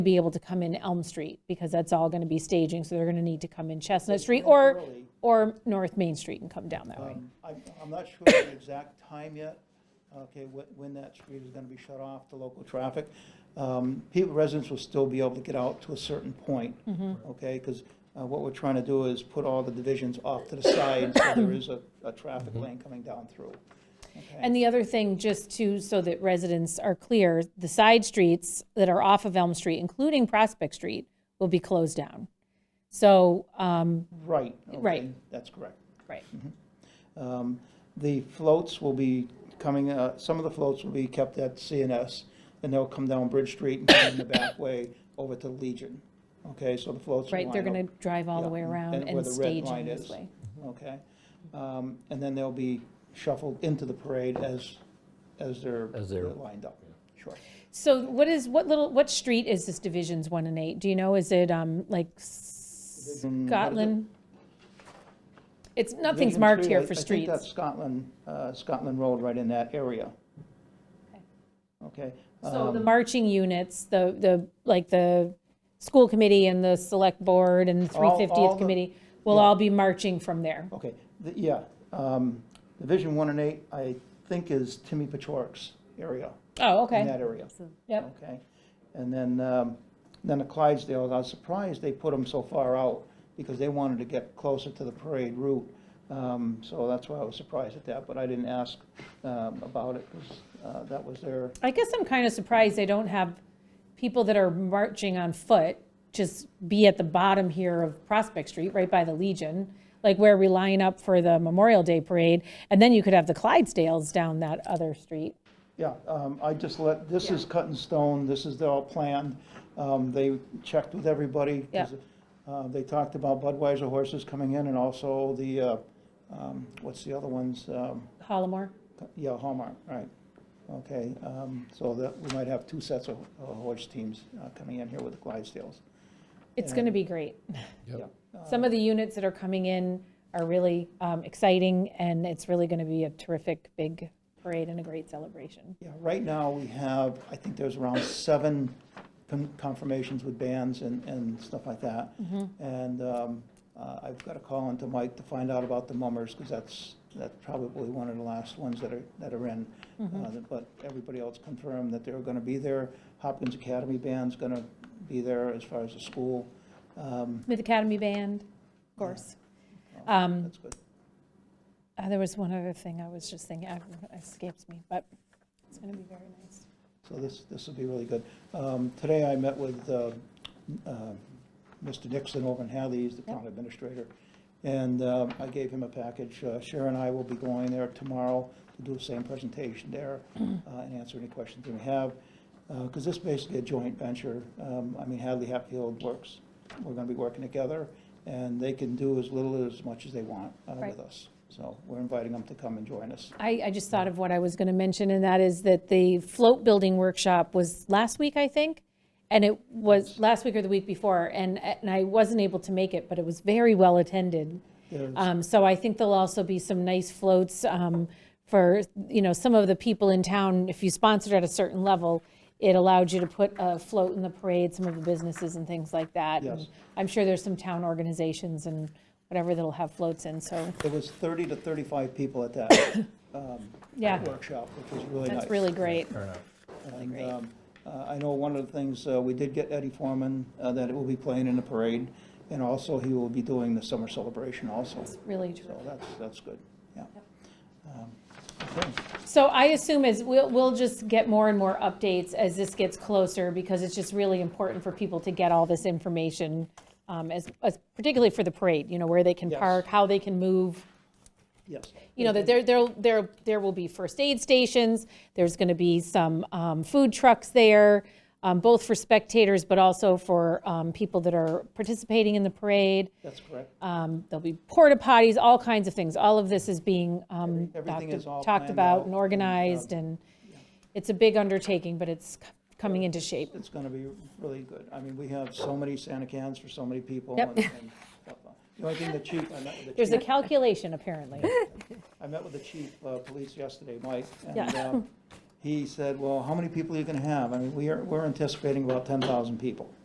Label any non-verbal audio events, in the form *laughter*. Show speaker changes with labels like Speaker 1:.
Speaker 1: be able to come in Elm Street, because that's all going to be staging, so they're going to need to come in Chestnut Street or,
Speaker 2: Early.
Speaker 1: or North Main Street and come down that way.
Speaker 2: Um, I'm, I'm not sure the exact time yet, okay, when, when that street is gonna be shut off to local traffic. Um, People, residents will still be able to get out to a certain point,
Speaker 1: Mm-hmm.
Speaker 2: okay? Because what we're trying to do is put all the divisions off to the
Speaker 1: *coughs*
Speaker 2: side, so there is a, a traffic lane coming down through.
Speaker 1: And the other thing, just to, so that residents are clear, the side streets that are off of Elm Street, including Prospect Street, will be closed down. So, um,
Speaker 2: Right. okay,
Speaker 1: Right.
Speaker 2: That's correct.
Speaker 1: right,
Speaker 2: Um, The floats will be coming, uh, some of the floats will be kept at CNS, and they'll come down Bridge Street and come in the back way over to Legion. Okay, so the floats will
Speaker 1: right, they're
Speaker 2: line
Speaker 1: going to drive all the way
Speaker 2: Yeah,
Speaker 1: around
Speaker 2: and where
Speaker 1: and
Speaker 2: the red
Speaker 1: stage
Speaker 2: line
Speaker 1: in this
Speaker 2: is.
Speaker 1: way.
Speaker 2: up, Okay? Um, And then they'll be shuffled into the parade as, as they're
Speaker 3: As they're-
Speaker 2: they're lined up. Sure.
Speaker 1: So what is, what little, what street is this Divisions 1 and 8? Do you know, is it um like
Speaker 2: Division- what is it?
Speaker 1: Scotland? It's, nothing's
Speaker 2: Division
Speaker 1: marked
Speaker 2: Street,
Speaker 1: here
Speaker 2: I-
Speaker 1: for
Speaker 2: I think that's
Speaker 1: streets.
Speaker 2: Scotland, uh, Scotland Road, right in that area. Okay?
Speaker 1: So the
Speaker 2: um,
Speaker 1: marching units, the, the, like the school committee and the select board and the
Speaker 2: All- all
Speaker 1: 350th
Speaker 2: the-
Speaker 1: committee will
Speaker 2: yeah.
Speaker 1: all be marching from there.
Speaker 2: Okay, the- yeah, um, Division 1 and 8, I think is Timmy Pachorik's area,
Speaker 1: Oh,
Speaker 2: in
Speaker 1: okay.
Speaker 2: that area,
Speaker 1: Yep,
Speaker 2: okay? And then, um, then the Clydesdales, I was surprised they put them so far out, because they wanted to get closer to the parade route, Um, so that's why I was surprised at that, but I didn't ask um, about it, because that was their,
Speaker 1: I guess I'm kind of surprised they don't have people that are marching on foot just be at the bottom here of Prospect Street, right by the Legion, like where we line up for the Memorial Day Parade, and then you could have the Clydesdales down that other street.
Speaker 2: Yeah, um, I just let, this is cut in stone, this is all planned. Um, They checked with everybody. 'cause, uh, They talked about Budweiser horses coming in and also the, uh, um, what's the other ones? Um,
Speaker 1: Hollamore?
Speaker 2: Yeah, Hallmark, right. Okay, um, so that, we might have two sets of of horse teams uh, coming in here with the Clydesdales.
Speaker 1: It's going to be great.
Speaker 2: Yeah.
Speaker 1: *laughs* Some of the units that are coming in are really um, exciting, and it's really going to be a terrific big parade and a great celebration.
Speaker 2: Yeah, right now, we have, I think there's around seven con- confirmations with bands and, and stuff like that. And um, uh, I've got to call into Mike to find out about the mummers, because that's, that's probably one of the last ones that are, that are in. Uh, But everybody else confirmed that they're going to be there. Hopkins Academy Band's going to be there as far as the school. Um,
Speaker 1: Smith Academy Band, of course. Um,
Speaker 2: That's good.
Speaker 1: Uh, There was one other thing I was just thinking, I- it escapes me, but it's going to be very nice.
Speaker 2: So this, this will be really good. Um, Today I met with uh, uh, Mr. Nixon over in Hadley, he's the town administrator, and um, I gave him a package. Uh, Sharon and I will be going there tomorrow to do the same presentation there uh, and answer any questions that we have, because this is basically a joint venture. Um, I mean, Hadley Hatfield works, we're going to be working together, and they can do as little as much as they want uh,
Speaker 1: Right.
Speaker 2: with us. So we're inviting them to come and join us.
Speaker 1: I, I just thought of what I was going to mention, and that is that the float building workshop was last week, I think, and it was last week or the week before, and, and I wasn't able to make it, but it was very well attended.
Speaker 2: There's-
Speaker 1: Um, So I think there'll also be some nice floats um, for, you know, some of the people in town, if you sponsored at a certain level, it allowed you to put a float in the parade, some of the businesses and things like that. And
Speaker 2: Yes.
Speaker 1: I'm sure there's some town organizations and whatever that'll have floats in, so,
Speaker 2: There was 30 to 35 people at that
Speaker 1: yeah,
Speaker 2: workshop, which was really nice.
Speaker 1: that's really great.
Speaker 2: And,
Speaker 1: great.
Speaker 2: um, uh, I know one of the things, uh, we did get Eddie Foreman, uh, that it will be playing in the parade, and also he will be doing the summer celebration also. So
Speaker 1: Really true.
Speaker 2: that's, that's good, yeah. Um, okay.
Speaker 1: So I assume as, we'll, we'll just get more and more updates as this gets closer, because it's just really important for people to get all this information, um, as, as, particularly for the parade, you know, where they can
Speaker 2: Yes.
Speaker 1: park, how they can move.
Speaker 2: Yes.
Speaker 1: You know, that there, there, there, there will be first aid stations, there's gonna be some, um, food trucks there, um, both for spectators, but also for, um, people that are participating in the parade.
Speaker 2: That's correct.
Speaker 1: Um, There'll be porta potties, all kinds of things. All of this is being um,
Speaker 2: Every- everything
Speaker 1: talked-
Speaker 2: is all
Speaker 1: talked
Speaker 2: planned
Speaker 1: about
Speaker 2: out
Speaker 1: and
Speaker 2: and,
Speaker 1: organized,
Speaker 2: um,
Speaker 1: and it's a big undertaking, but it's c- coming into shape.
Speaker 2: It's gonna be really good. I mean, we have so many Santa cans for so many people.
Speaker 1: Yep.
Speaker 2: and- and stuff. The only thing the chief, I met with the
Speaker 1: *laughs*
Speaker 2: chief.
Speaker 1: There's a calculation, apparently.
Speaker 2: I met with the chief of police yesterday, Mike, and
Speaker 1: Yeah.
Speaker 2: um, he said, well, how many people are you gonna have? I mean, we are, we're anticipating about ten thousand people.